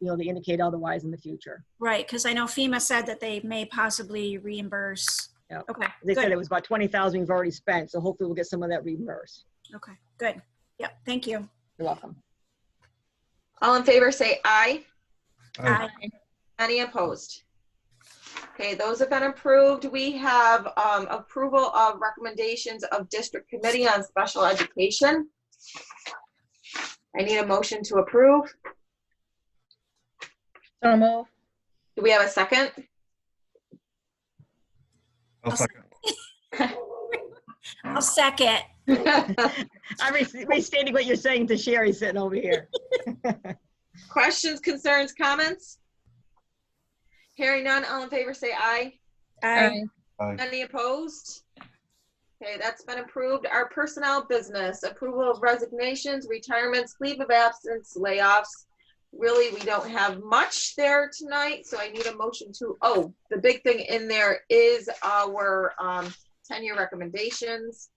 be able to indicate otherwise in the future. Right, because I know FEMA said that they may possibly reimburse. Yeah. Okay, They said good, it was about 20,000 we've already spent, so hopefully we'll get some of that reimbursed. okay, good. Yep, thank you. You're welcome. All in favor, say aye. Oh, Aye. Any opposed? Okay, those have been approved. We have um, approval of recommendations of District Committee on Special Education. I need a motion to approve. So move. Do we have a second? I'll I'll second. I'll second. I'm re- restating what you're saying to Sherry sitting over here. Questions, concerns, comments? Hearing none, all in favor, say aye. Aye. Any opposed? Okay, that's been approved. Our personnel business, approval of resignations, retirements, leave of absence, layoffs. Really, we don't have much there tonight, so I need a motion to, oh, the big thing in there is our um, tenure recommendations.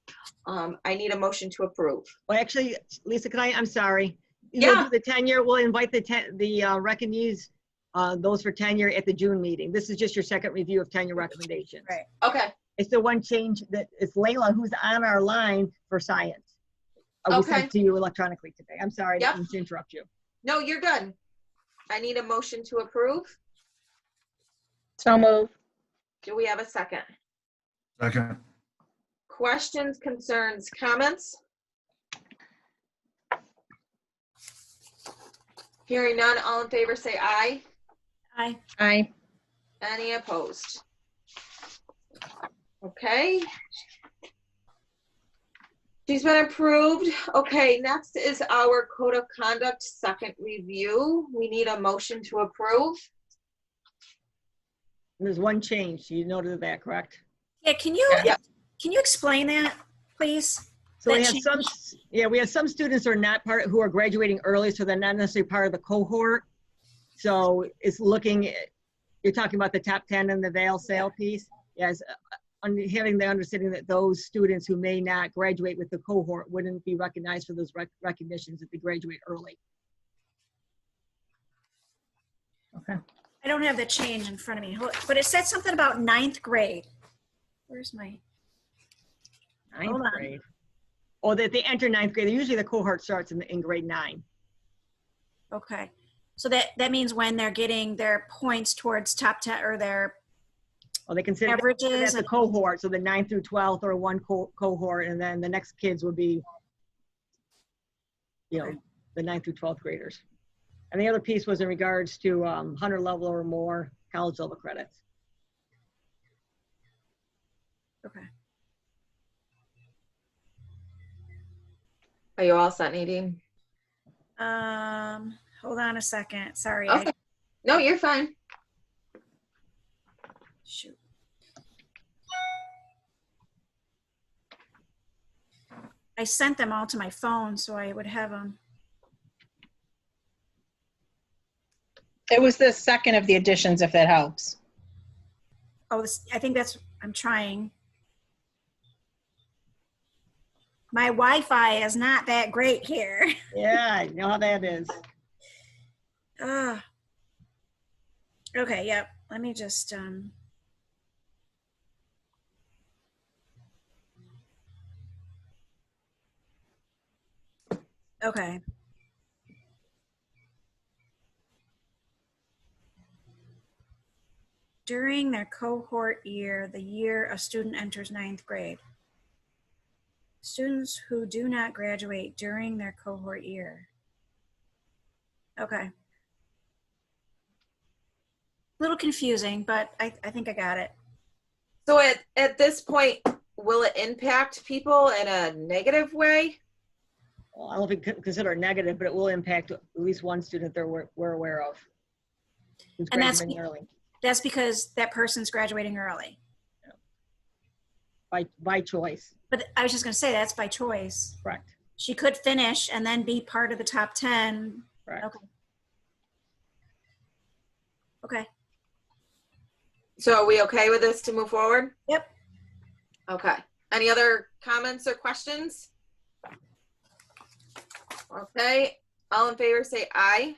Um, I need a motion to approve. Well, actually, Lisa, can I, I'm sorry. You'll do Yeah. The tenure, we'll invite the ten, the uh, recognees, uh, those for tenure at the June meeting. This is just your second review of tenure recommendations. Right. Okay, It's the one change that, it's Layla who's on our line for science. I will send Okay. it to you electronically today. I'm sorry, I Yep. didn't interrupt you. no, you're good. I need a motion to approve. So move. Do we have a second? Second. Questions, concerns, comments? Hearing none, all in favor say aye. Aye. Aye. Any opposed? Okay. She's been approved. Okay, next is our code of conduct second review. We need a motion to approve. There's one change. You noted that, correct? Yeah, can you, Yeah. can you explain that, please? So we That have some, yeah, we have some students who are not part, who are graduating early, so they're not necessarily part of the cohort. So it's looking, at- you're talking about the top 10 and the veil sale piece? Yes, uh, under- having the understanding that those students who may not graduate with the cohort wouldn't be recognized for those rec- recognitions if they graduate early. I don't have the change in front of me, Hold- but it said something about ninth grade. Where's my, Hold Ninth on. grade. Or that they enter ninth grade. Usually the cohort starts in, in grade nine. okay. So that, that means when they're getting their points towards top 10 or their Or they consider averages. That's a cohort, so the ninth through 12th or one co- cohort, and then the next kids would be, you know, Okay. the ninth through 12th graders. And the other piece was in regards to um, 100 level or more college level credits. Okay. Are you all set, Nadine? Um, hold on a second. Sorry. I- Okay. No, you're fine. Shoot. I sent them all to my phone so I would have them. It was the second of the additions, if that helps. Oh, this, I think that's, I'm trying. My Wi-Fi is not that great here. Yeah, I know how that is. Ah. Okay, yep. Let me just, um. Okay. During their cohort year, the year a student enters ninth grade. Students who do not graduate during their cohort year. Okay little confusing, but I, I think I got it. So at, at this point, will it impact people in a negative way? Well, I don't know if you could consider it negative, but it will impact at least one student that we're, we're aware of. who's And that's- graduating early That's because that person's graduating early. By, by choice, But I was just going to say that's by choice. correct, She could finish and then be part of the top 10. correct. Okay. So are we okay with this to move forward? Yep. Okay. Any other comments or questions? Okay, all in favor say aye.